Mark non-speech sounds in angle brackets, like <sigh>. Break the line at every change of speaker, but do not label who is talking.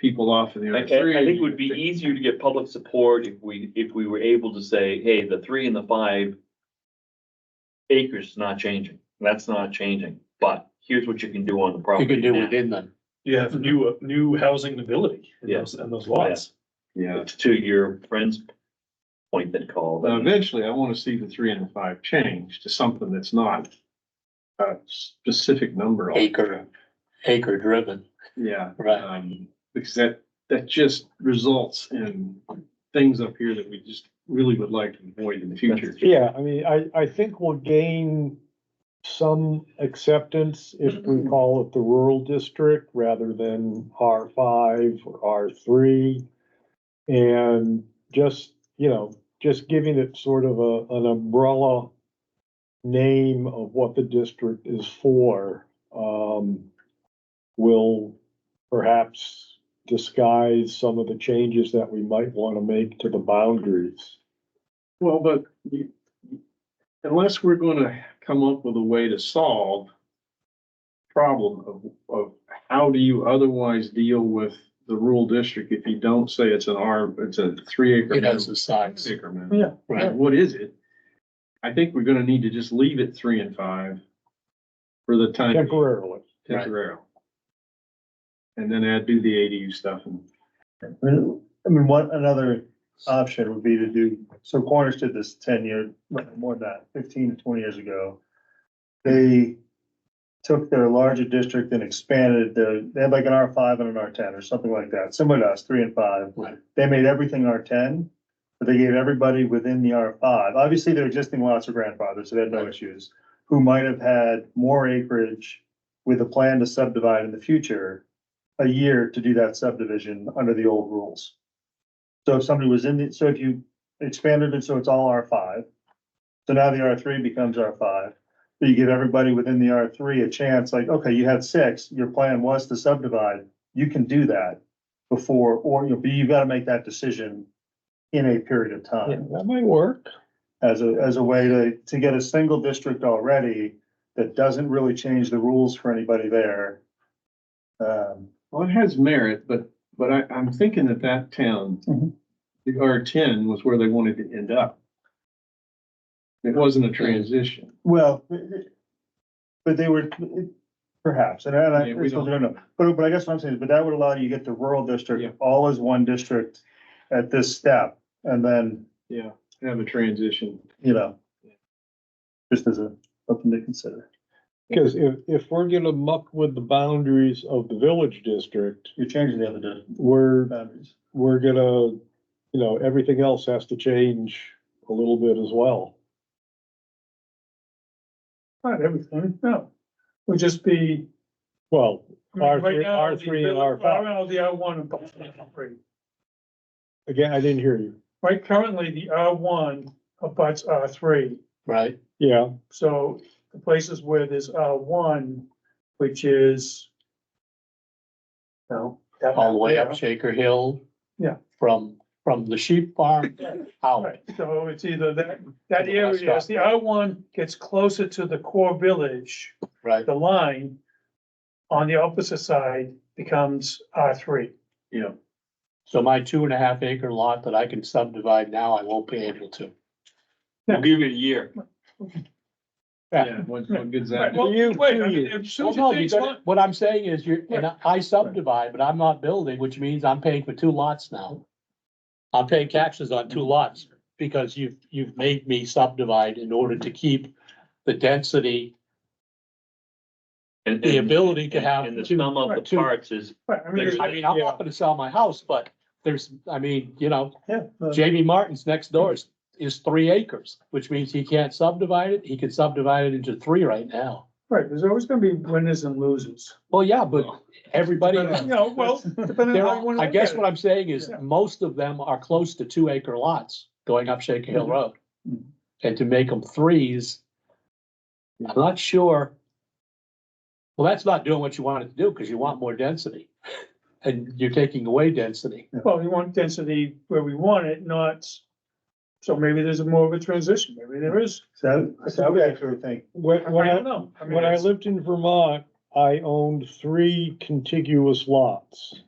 people off of the
I,
R
I think
three.
it would be easier to get public support if we, if we were able to say, hey, the three and the five acres is not changing. That's not changing, but here's what you can do on the
You
property
could do
now.
within them.
You have new, new housing ability in
Yeah.
those, in those lots.
Yeah,
To your friend's point that called.
Now, eventually I wanna see the three and the five change to something that's not a specific number.
Acre, acre driven,
Yeah.
right?
Um, because that, that just results in things up here that we just really would like to avoid in the future.
Yeah, I mean, I, I think we'll gain some acceptance if we call it the rural district rather than R five or R three. And just, you know, just giving it sort of a, an umbrella name of what the district is for, um, will perhaps disguise some of the changes that we might want to make to the boundaries.
Well, but you, unless we're gonna come up with a way to solve problem of, of how do you otherwise deal with the rural district if you don't say it's an R, it's a three acre.
It has
minimum,
the size,
six acre minimum,
Yeah.
right?
What is it? I think we're gonna need to just leave it three and five for the time. being.
Temporarily.
Right.
Temporarily. And then add, do the ADU stuff and.
I mean, I mean, one, another option would be to do, so Cornish did this ten year, more than that, fifteen to twenty years ago. They took their larger district and expanded their, they had like an R five and an R ten or something like that, similar to us, three and five.
Right.
They made everything R ten, but they gave everybody within the R five, obviously their existing lots are grandfathered, so they had no issues. Who might have had more acreage with a plan to subdivide in the future a year to do that subdivision under the old rules. So if somebody was in the, so if you expanded it, so it's all R five. So now the R three becomes R five, but you give everybody within the R three a chance, like, okay, you had six, your plan was to subdivide, you can do that. Before, or you'll be, you gotta make that decision in a period of time
That might work.
as a, as a way to, to get a single district already that doesn't really change the rules for anybody there. Um,
Well, it has merit, but, but I, I'm thinking that that town,
Mm-hmm.
Mhm.
the R ten was where they wanted to end up. It wasn't a transition.
Well, it- it- but they were, it- perhaps, and I, and I
Yeah, we
still
don't-
don't know, but, but I guess what I'm saying, is, but that would allow you to get the rural
Yeah.
district, all as one district at this step, and then,
Yeah. Have a transition.
you know, just as a, something to consider,
Because if, if we're gonna muck with the boundaries of the village district,
you're changing the other district
we're,
boundaries.
we're gonna, you know, everything else has to change a little bit as well.
Not everything, no. Would just be.
Well,
I mean,
R3
right now,
R3 and
the-
R5.
Right now, the R one and R3.
again, I didn't hear you.
Right, currently, the R one abuts R three.
Right,
Yeah,
So the places where there's R one, which is. No. that-
all the way up Shaker Hill.
Yeah.
From, from the sheep
<laughs>
farm out,
Right, so it's either that, that
To the last
area, as the R one gets closer to the core village,
right?
the line on the opposite side becomes R three.
Yeah.
So my two and a half acre lot that I can subdivide now, I won't be able to.
We'll give it a year.
Yeah. What, what good's that?
Well,
you-
wait, I
you-
mean, if
Well,
soon
no,
as things
because
line-
What I'm saying is you're, and I- I subdivide, but I'm not building, which means I'm paying for two lots now. I'm paying taxes on two lots because you've, you've made me subdivide in order to keep the density,
And-
the
and-
ability to have
And the
two.
sum of the
two-
parts is,
right, I mean,
There's-
it's-
I mean, I'm not gonna sell my house, but there's, I mean, you know,
Yeah,
uh,
no,
Jamie Martin's next door is, is three acres, which means he can't subdivide it. He can subdivide it into three right now.
right, there's always gonna be winners and losers.
Well, yeah, but everybody.
<laughs>
<laughs>
You know, well,
There
depending on how you
are,
wanna
I
look
guess
at
what
it.
I'm saying is,
Yeah.
most of them are close to two acre lots going up Shaker Hill
Mhm.
Road.
Mhm.
And to make them threes, I'm not sure. Well, that's not doing what you wanted to do, because you want more density, and you're taking away density.
Well, we want density where we want it, not, so maybe there's a more of a transition, maybe there is.
So, so I would actually think,
when, when
I
I,
don't know. mean,
when I
it's-
lived in Vermont, I owned three contiguous lots.